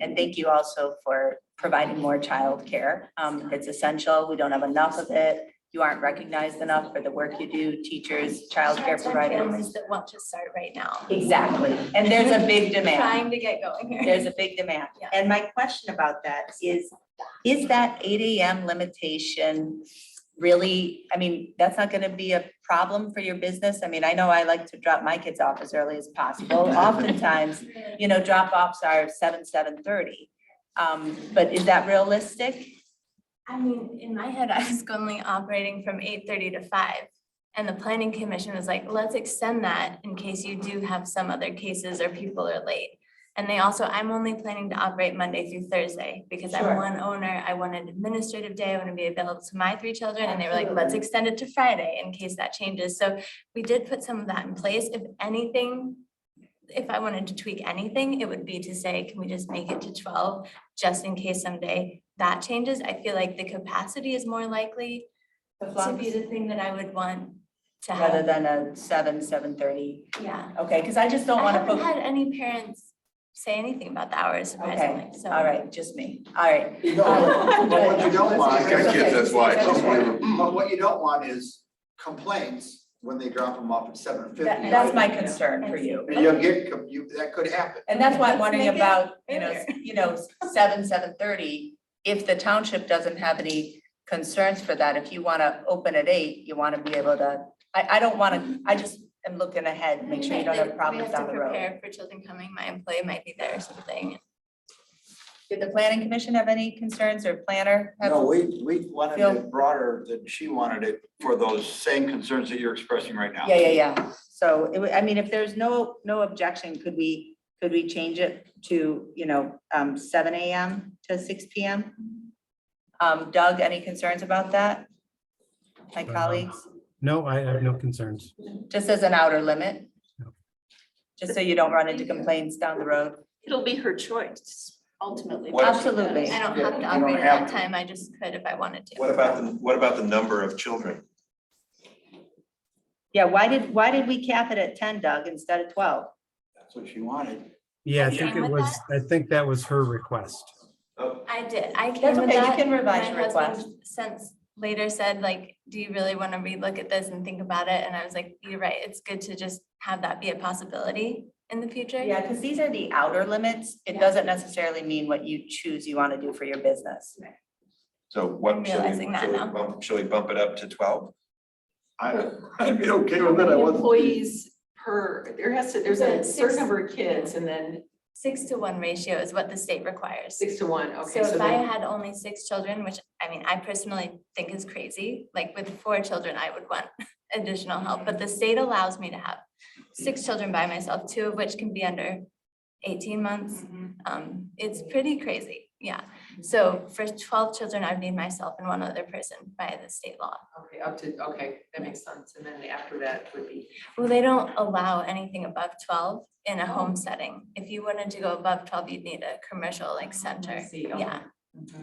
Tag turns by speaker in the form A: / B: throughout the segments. A: And thank you also for providing more childcare. Um, it's essential. We don't have enough of it. You aren't recognized enough for the work you do, teachers, childcare
B: Childcare
A: providers.
B: Families that want to start right now,
A: Exactly. And there's a big demand.
B: trying to get going here.
A: There's a big demand.
B: Yeah.
A: And my question about that is, is that eight AM limitation really, I mean, that's not gonna be a problem for your business? I mean, I know I like to drop my kids off as early as possible. Oftentimes, you know, drop offs are seven, seven thirty. Um, but is that realistic?
B: I mean, in my head, I was only operating from eight thirty to five. And the planning commission was like, let's extend that in case you do have some other cases or people are late. And they also, I'm only planning to operate Monday through Thursday because I'm
A: Sure.
B: one owner. I want an administrative day. I want to be available to my three children. And they were like, let's extend it to Friday in case that changes. So we did put some of that in place. If anything, if I wanted to tweak anything, it would be to say, can we just make it to twelve, just in case someday that changes? I feel like the capacity is more likely to be the thing that I would want to
A: Rather
B: have.
A: than a seven, seven thirty?
B: Yeah.
A: Okay, because I just don't
B: I
A: wanna
B: haven't
A: put.
B: had any parents say anything about the hours surprisingly, so.
A: All right, just me. All right. Uh,
C: No, but what you don't want.
D: Got kids, that's why.
C: But what you don't want is complaints when they drop them off at seven fifty.
A: That- that's my concern for you.
C: And you'll get, com- you, that could happen.
A: And that's why I'm
B: Let's
A: wondering
B: make it
A: about, you know, s- you know, seven, seven thirty, if the township doesn't have any concerns for that, if you wanna open at eight, you wanna be able to, I, I don't wanna, I just am looking ahead, make sure you don't
B: Right,
A: have
B: we
A: problems
B: have to
A: down the road.
B: prepare For children coming, my employee might be there or something.
A: Did the planning commission have any concerns or planner? have-
D: No, we, we wanted
A: Phil?
D: it broader than she wanted it for those same concerns that you're expressing right now.
A: Yeah, yeah, yeah. So it, wa- I mean, if there's no, no objection, could we, could we change it to, you know, um, seven AM to six PM? Um, Doug, any concerns about that? My
E: Uh,
A: colleagues?
E: No, I have no concerns.
A: Just as an outer limit?
E: Yeah.
A: Just so you don't run into complaints down the road?
F: It'll be her choice ultimately.
G: What-
A: Absolutely.
B: I
D: Yeah,
B: don't have
D: you
B: to
D: don't
B: operate at that
D: have to.
B: time, I just could if I wanted to.
G: What about the, what about the number of children?
A: Yeah, why did, why did we cap it at ten, Doug, instead of twelve?
D: That's what she wanted.
E: Yeah, I
B: Okay.
E: think
B: And
E: it
B: with
E: was, I think that was her request.
B: I did, I came
A: That's
B: with
A: okay, you
B: that.
A: can revise
B: My
A: your
B: husband Since later said like, do you really want to relook at this and think about it? And I was like, you're right, it's good to just have that be a possibility in the future.
A: Yeah, because these are the outer limits. It
B: Yeah.
A: doesn't necessarily mean what you choose you want to do for your business.
G: So what?
B: I'm
G: should we-
B: realizing that
G: should we
B: now.
G: bump- Should we bump it up to twelve?
D: I, I'd be okay with that. I wasn't.
F: Employees per, there has to, there's
B: The
F: a
B: six-
F: certain number of kids and then
B: Six to one ratio is what the state requires.
F: six to one,
B: So
F: okay, so
B: if I
F: then,
B: had only six children, which I mean, I personally think is crazy, like with four children, I would want additional help, but the state allows me to have six children by myself, two of which can be under eighteen months.
F: Mm-hmm.
B: Um, it's pretty crazy, yeah. So for twelve children, I'd need myself and one other person by the state law.
F: okay, up to, okay, that makes sense. And then after that would be,
B: Well, they don't allow anything above twelve in a home setting. If you wanted to go above twelve, you'd need a commercial like
F: I
B: center,
F: see, okay. Mm-hmm.
B: yeah.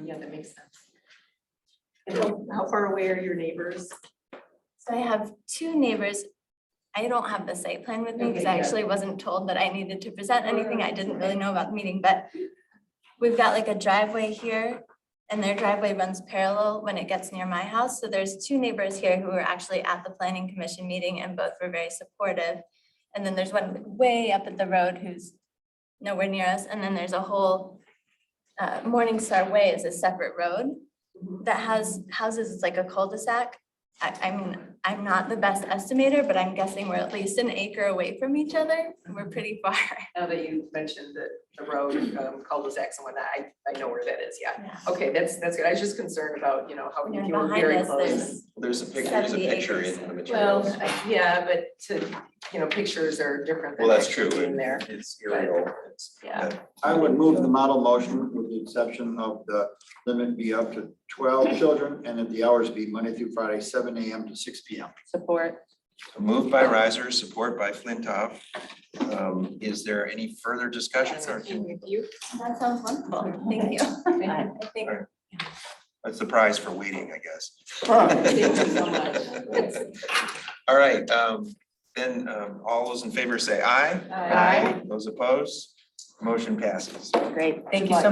F: Yeah, that makes sense. And how, how far away are your neighbors?
B: So I have two neighbors. I don't have the site plan with me because
F: Okay,
B: I
F: yeah. Oh,
B: actually wasn't told that I needed to present anything. I didn't really
F: Right.
B: know about the meeting, but we've got like a driveway here and their driveway runs parallel when it gets near my house. So there's two neighbors here who were actually at the planning commission meeting and both were very supportive. And then there's one way up at the road who's nowhere near us. And then there's a whole uh, Morningstar Way is a separate road
F: Mm-hmm.
B: that has houses, it's like a cul-de-sac. I, I mean, I'm not the best estimator, but I'm guessing we're at least an acre away from each other. We're pretty far.
F: Now that you mentioned that the road, um, cul-de-sacs and whatnot, I, I know where that is, yeah.
B: Yeah.
F: Okay, that's, that's good. I was just concerned about, you know, how
B: And
F: if
B: then
F: you were
B: behind
F: very
B: us,
F: close.
B: there's,
G: There's a picture, there's a
B: 70
G: picture
B: acres.
G: in the
F: Well,
G: materials.
F: I- yeah, but to, you know, pictures are different.
G: Well,
F: than
G: that's true.
F: actually Being there.
G: It's aerial. It's-
F: Yeah.
C: I would move the model motion with the exception of the limit be up to twelve children and that the hours be Monday through Friday, seven AM to six PM.
A: Support.
G: Moved by riser, support by Flintoff. Um, Is there any further discussion? or can-
F: With you.
B: that sounds wonderful. Thank you. I think
G: That's the prize for waiting, I guess.
F: Thank you so much.
G: All right, um, then, um, all those in favor say aye.
F: Aye.
G: Those opposed, motion passes.
A: Great. Thank you so